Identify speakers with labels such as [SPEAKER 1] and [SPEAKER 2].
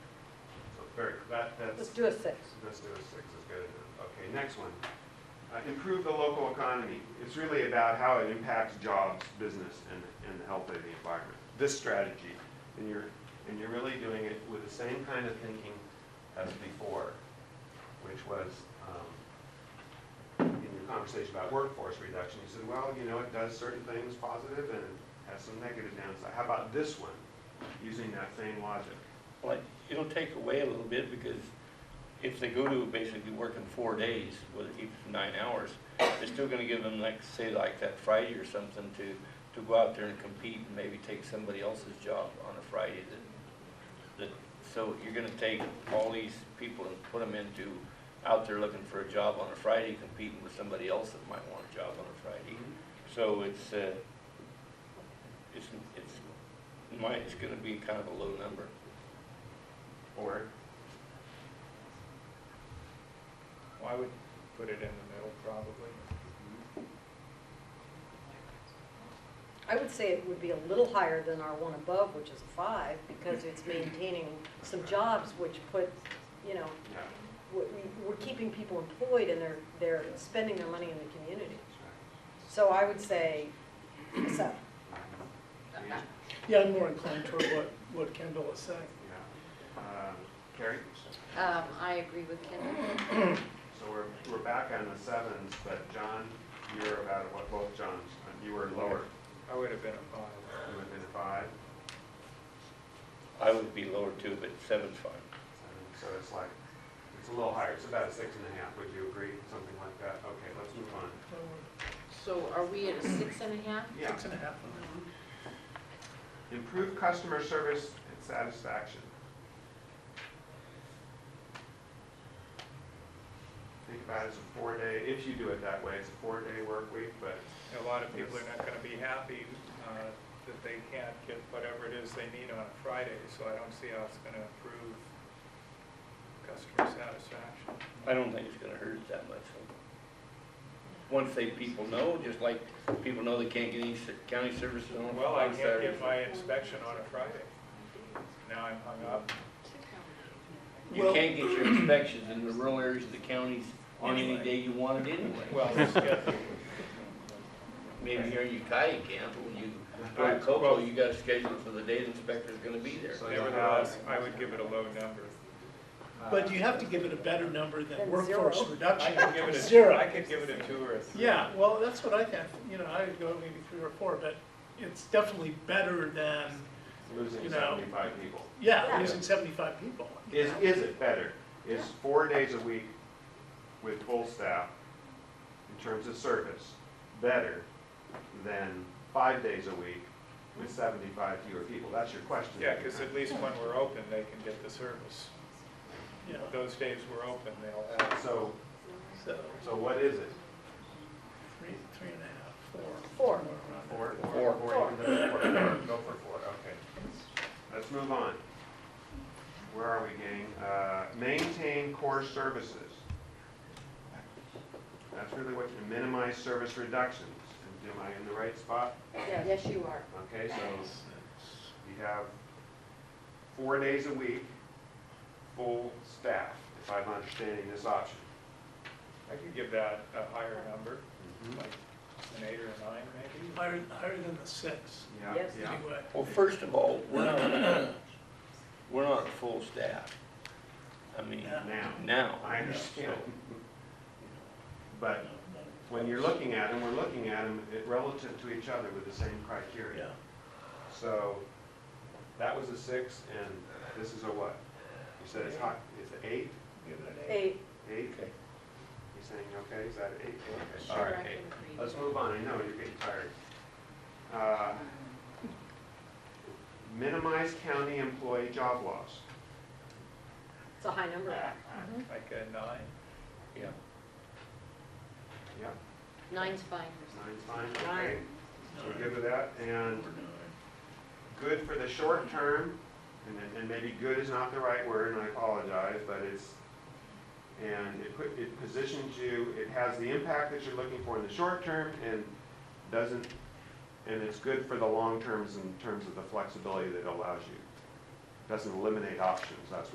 [SPEAKER 1] very, that,
[SPEAKER 2] Let's
[SPEAKER 1] that's,
[SPEAKER 2] do a six.
[SPEAKER 1] let's do a six, that's good enough. Okay, next one. Uh, Improve the local economy. It's really about how it impacts jobs, business, and, and the health of the environment. This strategy, and you're, and you're really doing it with the same kind of thinking as before, which was, um, in your conversation about workforce reduction, you said, well, you know, it does certain things positive and has some negative downside. How about this one, using that same logic?
[SPEAKER 3] Well, it'll take away a little bit because if they go to basically working four days, whether it keeps them nine hours, they're still gonna give them like, say like that Friday or something to, to go out there and compete and maybe take somebody else's job on a Friday that, that, so you're gonna take all these people and put them into, out there looking for a job on a Friday, competing with somebody else that might want a job on a Friday. So it's, uh, it's, it's, my, it's gonna be kind of a low number.
[SPEAKER 1] Or
[SPEAKER 4] Well, I would put it in the middle probably.
[SPEAKER 2] I would say it would be a little higher than our one above, which is a five, because it's maintaining some jobs which put, you know,
[SPEAKER 1] Yeah,
[SPEAKER 2] we- we- we're keeping people employed and they're, they're spending their money in the community.
[SPEAKER 1] that's
[SPEAKER 2] So I would say a seven.
[SPEAKER 1] right. Yeah,
[SPEAKER 5] Yeah, I'm more inclined toward what, what Kendall is saying.
[SPEAKER 1] yeah. Um, Carrie,
[SPEAKER 6] Um, I agree with Kendall.
[SPEAKER 1] so we're, we're back on the sevens, but John, you're about, what, both Johns, uh, you were lower,
[SPEAKER 4] I would have been a five.
[SPEAKER 1] you went in five,
[SPEAKER 3] I would be lower too, but seven's fine.
[SPEAKER 1] seven, so it's like, it's a little higher, it's about a six and a half, would you agree, something like that? Okay, let's move on.
[SPEAKER 6] So are we at a six and a half?
[SPEAKER 1] Yeah,
[SPEAKER 5] Six and a half.
[SPEAKER 1] improve customer service and satisfaction. Think about it as a four-day, if you do it that way, it's a four-day work week, but
[SPEAKER 4] A lot of people are not gonna be happy, uh, that they can't get whatever it is they need on a Friday, so I don't see how it's gonna improve customer satisfaction.
[SPEAKER 3] I don't think it's gonna hurt it that much. Once they, people know, just like people know they can't get any ser- county services on.
[SPEAKER 4] Well, I
[SPEAKER 3] on
[SPEAKER 4] can't
[SPEAKER 3] Saturday.
[SPEAKER 4] get my inspection on a Friday. Now I'm hung up.
[SPEAKER 3] You
[SPEAKER 5] Well-
[SPEAKER 3] can't get your inspections in the rural areas of the counties on any day you want it anyway.
[SPEAKER 4] Well, the schedule,
[SPEAKER 3] Maybe here in Ukiah you can, but when you go to Cocoa, you gotta schedule it for the day the inspector's gonna be there.
[SPEAKER 1] So-
[SPEAKER 4] nevertheless, I would give it a low number.
[SPEAKER 1] uh,
[SPEAKER 4] Uh,
[SPEAKER 5] But you have to give it a better number
[SPEAKER 2] Than
[SPEAKER 5] than workforce
[SPEAKER 2] zero.
[SPEAKER 4] I
[SPEAKER 5] reduction.
[SPEAKER 4] could give it a,
[SPEAKER 5] Zero.
[SPEAKER 4] I could give it a two or a three.
[SPEAKER 5] Yeah, well, that's what I think, you know, I would go maybe three or four, but it's definitely better than,
[SPEAKER 1] losing
[SPEAKER 5] You know.
[SPEAKER 1] seventy-five people.
[SPEAKER 5] yeah,
[SPEAKER 2] Yeah.
[SPEAKER 5] losing seventy-five people.
[SPEAKER 1] Is, is it better? Is four days a week with full staff in terms of service better than five days a week with seventy-five fewer people? That's your question.
[SPEAKER 4] Yeah, because at least when we're open, they can get the service.
[SPEAKER 5] Yeah,
[SPEAKER 4] Those days we're open, they'll have.
[SPEAKER 1] So,
[SPEAKER 5] so,
[SPEAKER 1] so what is it?
[SPEAKER 5] three, three and a half, four.
[SPEAKER 2] Four.
[SPEAKER 5] somewhere around there.
[SPEAKER 1] Four?
[SPEAKER 3] Four.
[SPEAKER 1] Four, you can go for four. Go for four, okay. Let's move on. Where are we, gang? Uh, Maintain core services. That's really what, you minimize service reductions. Am I in the right spot?
[SPEAKER 2] Yes.
[SPEAKER 6] Yes, you are.
[SPEAKER 1] Okay, so you have four days a week, full staff, if I'm understanding this option.
[SPEAKER 4] I could give that a higher number, like an eight or a nine maybe.
[SPEAKER 5] Higher, higher than the six,
[SPEAKER 1] Yeah,
[SPEAKER 2] Yes.
[SPEAKER 1] yeah.
[SPEAKER 5] anyway.
[SPEAKER 3] Well, first of all, we're not, we're not full staff. I mean,
[SPEAKER 5] Yeah.
[SPEAKER 1] Now,
[SPEAKER 3] now.
[SPEAKER 1] I understand.
[SPEAKER 3] So,
[SPEAKER 1] But when you're looking at them, we're looking at them relative to each other with the same criteria.
[SPEAKER 5] Yeah,
[SPEAKER 1] So that was a six, and this is a what? You said it's hot, it's an eight,
[SPEAKER 5] give it an eight.
[SPEAKER 2] Eight,
[SPEAKER 1] eight?
[SPEAKER 3] Okay.
[SPEAKER 1] You saying, okay, is that an eight? Okay,
[SPEAKER 6] Sure,
[SPEAKER 1] all
[SPEAKER 6] I
[SPEAKER 1] right,
[SPEAKER 6] can
[SPEAKER 1] eight.
[SPEAKER 6] agree.
[SPEAKER 1] Let's move on, I know you're getting tired. Uh, Minimize county employee job loss.
[SPEAKER 2] it's a high number.
[SPEAKER 4] Like a nine,
[SPEAKER 3] Yeah.
[SPEAKER 1] Yep,
[SPEAKER 6] Nine's fine.
[SPEAKER 1] nine's fine, okay. So We're
[SPEAKER 5] Nine.
[SPEAKER 1] good with that, and
[SPEAKER 5] Or nine.
[SPEAKER 1] good for the short term, and, then- and maybe good is not the right word, and I apologize, but it's, and it put, it positions you, it has the impact that you're looking for in the short term, and doesn't, and it's good for the long terms in terms of the flexibility that it allows you. Doesn't eliminate options, that's